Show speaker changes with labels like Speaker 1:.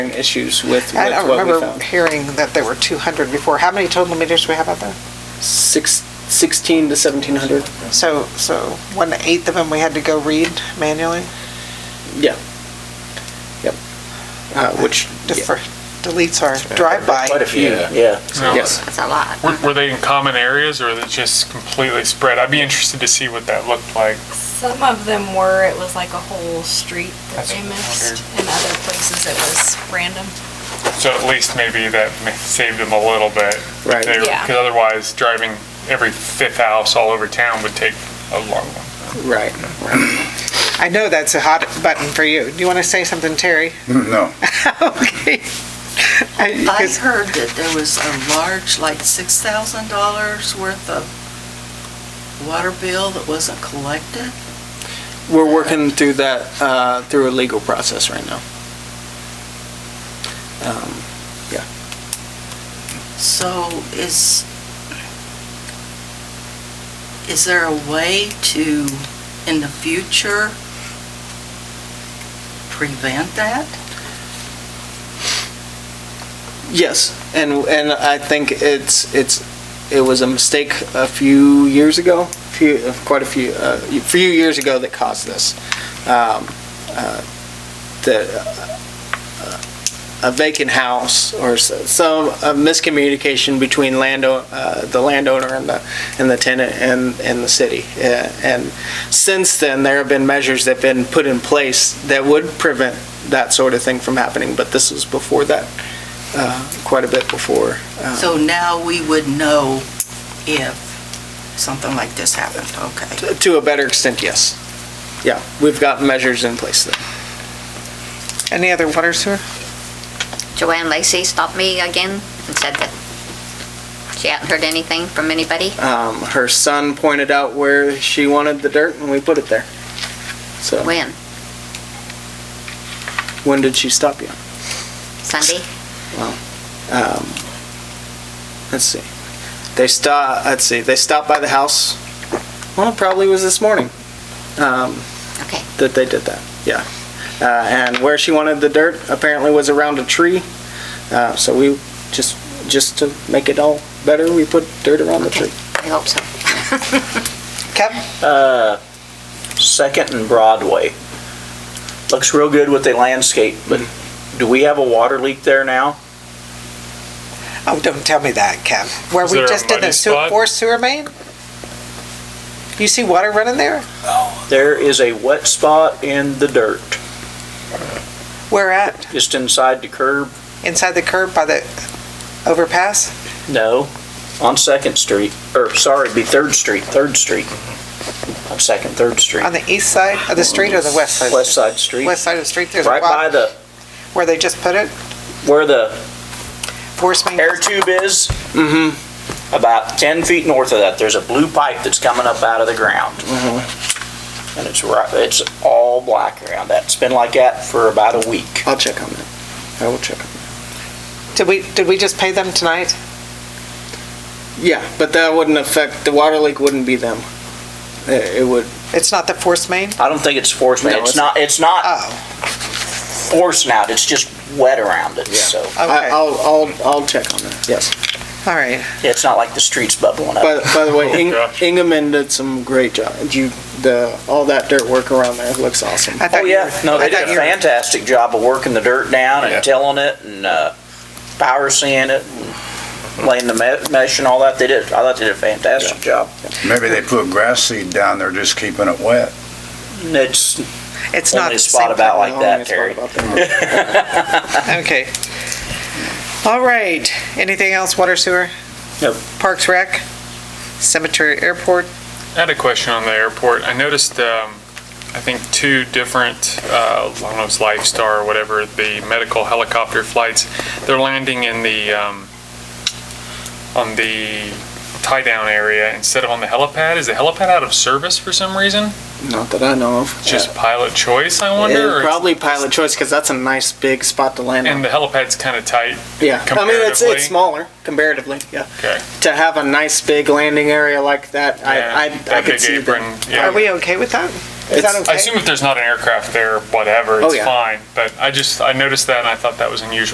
Speaker 1: issues with
Speaker 2: I
Speaker 1: with
Speaker 2: don't
Speaker 1: what we
Speaker 2: remember
Speaker 1: found.
Speaker 2: hearing that there were 200 before. How many total meters do we have out there?
Speaker 1: Six, 16 to 1700,
Speaker 2: So, so one eighth of them we had to go read manually,
Speaker 1: yeah. Yep. Uh, Which,
Speaker 2: just
Speaker 1: yeah.
Speaker 2: for, deletes our drive-by.
Speaker 1: a few.
Speaker 3: Yeah.
Speaker 1: Yes.
Speaker 4: That's a lot.
Speaker 5: Were, were they in common areas or they just completely spread? I'd be interested to see what that looked like.
Speaker 6: Some of them were, it was like a whole street that
Speaker 5: That's
Speaker 6: they
Speaker 5: what I
Speaker 6: missed. In other places, it was random.
Speaker 5: So at least maybe that ma- saved them a little bit.
Speaker 1: Right.
Speaker 6: Yeah.
Speaker 5: Because otherwise, driving every fifth house all over town would take a long one.
Speaker 1: Right.
Speaker 2: I know that's a hot button for you. Do you want to say something, Terry?
Speaker 7: No,
Speaker 2: Okay. Uh, I-
Speaker 3: I
Speaker 2: 'cause-
Speaker 3: heard that there was a large, like six thousand dollars worth of water bill that wasn't collected.
Speaker 1: We're working through that, uh, through a legal process right now. Um,
Speaker 3: So is, is there a way to, in the future, prevent that?
Speaker 1: Yes, and, and I think it's, it's, it was a mistake a few years ago, few, quite a few, uh, a few years ago that caused this. Um, uh, The, uh, a vacant house or s- some uh, miscommunication between landowner, the landowner and the, and the tenant and, and the city. Uh, And since then, there have been measures that have been put in place that would prevent that sort of thing from happening, but this was before that uh, quite a bit before. uh,
Speaker 3: So now we would know if something like this happened, okay?
Speaker 1: t- To a better extent, yes. Yeah, we've got measures in place then.
Speaker 2: Any other water sewer?
Speaker 4: Joanne Lacey stopped me again and said that she hadn't heard anything from anybody.
Speaker 1: Um, Her son pointed out where she wanted the dirt and we put it there. So
Speaker 4: When?
Speaker 1: when did she stop you?
Speaker 4: Sunday?
Speaker 1: Um, Let's see. They stop, let's see, they stopped by the house, well, it probably was this morning um,
Speaker 4: Okay.
Speaker 1: that they did that, yeah. Uh, And where she wanted the dirt apparently was around a tree. Uh, So we, just, just to make it all better, we put dirt around the
Speaker 4: Okay.
Speaker 1: tree.
Speaker 4: I hope so.
Speaker 2: Kevin?
Speaker 8: Uh, Second and Broadway. Looks real good with the landscape, but do we have a water leak there now?
Speaker 2: Oh, don't tell me that, Kev. Where
Speaker 5: Is
Speaker 2: we
Speaker 5: there a
Speaker 2: just did a
Speaker 5: muddy
Speaker 2: sewer,
Speaker 5: spot?
Speaker 2: four sewer main? You see water running there?
Speaker 8: There is a wet spot in the dirt,
Speaker 2: Where at?
Speaker 8: just inside the curb,
Speaker 2: Inside the curb by the overpass?
Speaker 8: no, on Second Street, or sorry, it'd be Third Street, Third Street. On Second, Third Street.
Speaker 2: On the east side of the street or the west side?
Speaker 8: West Side Street,
Speaker 2: West side of the street, there's a
Speaker 8: right by
Speaker 2: lot,
Speaker 8: the,
Speaker 2: where they just put it,
Speaker 8: where the
Speaker 2: force main.
Speaker 8: air tube is. Mm-hmm. About ten feet north of that, there's a blue pipe that's coming up out of the ground. And it's right, it's all black around that. It's been like that for about a week.
Speaker 1: I'll check on that. I will check. on that.
Speaker 2: Did we, did we just pay them tonight?
Speaker 1: Yeah, but that wouldn't affect, the water leak wouldn't be them. It it would,
Speaker 2: It's not the force main?
Speaker 8: I don't think it's forced,
Speaker 1: No,
Speaker 8: it's
Speaker 1: it's-
Speaker 8: not, it's not
Speaker 2: Oh,
Speaker 8: forcing out, it's just wet around it, so.
Speaker 1: I-
Speaker 8: uh,
Speaker 2: okay, all
Speaker 1: I'll, I'll, I'll check on that, yes.
Speaker 2: right.
Speaker 8: It's not like the street's bubbling up.
Speaker 1: By, by the way, Ing-
Speaker 5: Oh, gosh.
Speaker 1: Ingeman did some great job. You, the, all that dirt work around there looks awesome.
Speaker 2: I
Speaker 8: Oh,
Speaker 2: thought you
Speaker 8: yeah,
Speaker 2: were-
Speaker 8: no,
Speaker 2: I
Speaker 8: they did
Speaker 2: thought
Speaker 8: a
Speaker 2: you were-
Speaker 8: fantastic job of working the dirt down
Speaker 5: Yeah.
Speaker 8: and tilling it and, uh, power sand it, and laying the me- mesh and all that. They did, I thought they did a fantastic job.
Speaker 7: maybe they put grass seed down there, just keeping it wet.
Speaker 8: And It's
Speaker 2: It's not the
Speaker 8: only a
Speaker 2: same.
Speaker 8: spot about like
Speaker 1: Oh,
Speaker 8: that,
Speaker 1: it's
Speaker 8: Terry.
Speaker 1: all about that.
Speaker 2: Okay. All right, anything else, water sewer?
Speaker 8: Nope.
Speaker 2: Parks Rec? Cemetery, airport?
Speaker 5: I had a question on the airport. I noticed, um, I think, two different, uh, I don't know, if it's Lifestar or whatever, the medical helicopter flights. They're landing in the, um, on the tie-down area instead of on the helipad. Is the helipad out of service for some reason?
Speaker 1: Not that I know of.
Speaker 5: It's Just pilot choice, I
Speaker 1: Yeah,
Speaker 5: wonder? or it's-
Speaker 1: Probably pilot choice, because that's a nice big spot to land
Speaker 5: And
Speaker 1: on.
Speaker 5: the helipad's kind of tight.
Speaker 1: Yeah, I mean, it's,
Speaker 5: comparatively-
Speaker 1: it's smaller comparatively, yeah.
Speaker 5: Okay.
Speaker 1: To have a nice big landing area like that,
Speaker 5: Yeah,
Speaker 1: I, I, I
Speaker 5: that
Speaker 1: could
Speaker 5: big
Speaker 1: see
Speaker 5: apron,
Speaker 1: that.
Speaker 5: yeah.
Speaker 2: Are we okay with that? Is that
Speaker 5: It's-
Speaker 2: okay?
Speaker 5: I assume if there's not an aircraft there, whatever,
Speaker 1: Oh,
Speaker 5: it's
Speaker 1: yeah.
Speaker 5: fine. But I just, I noticed that and I thought that was unusual.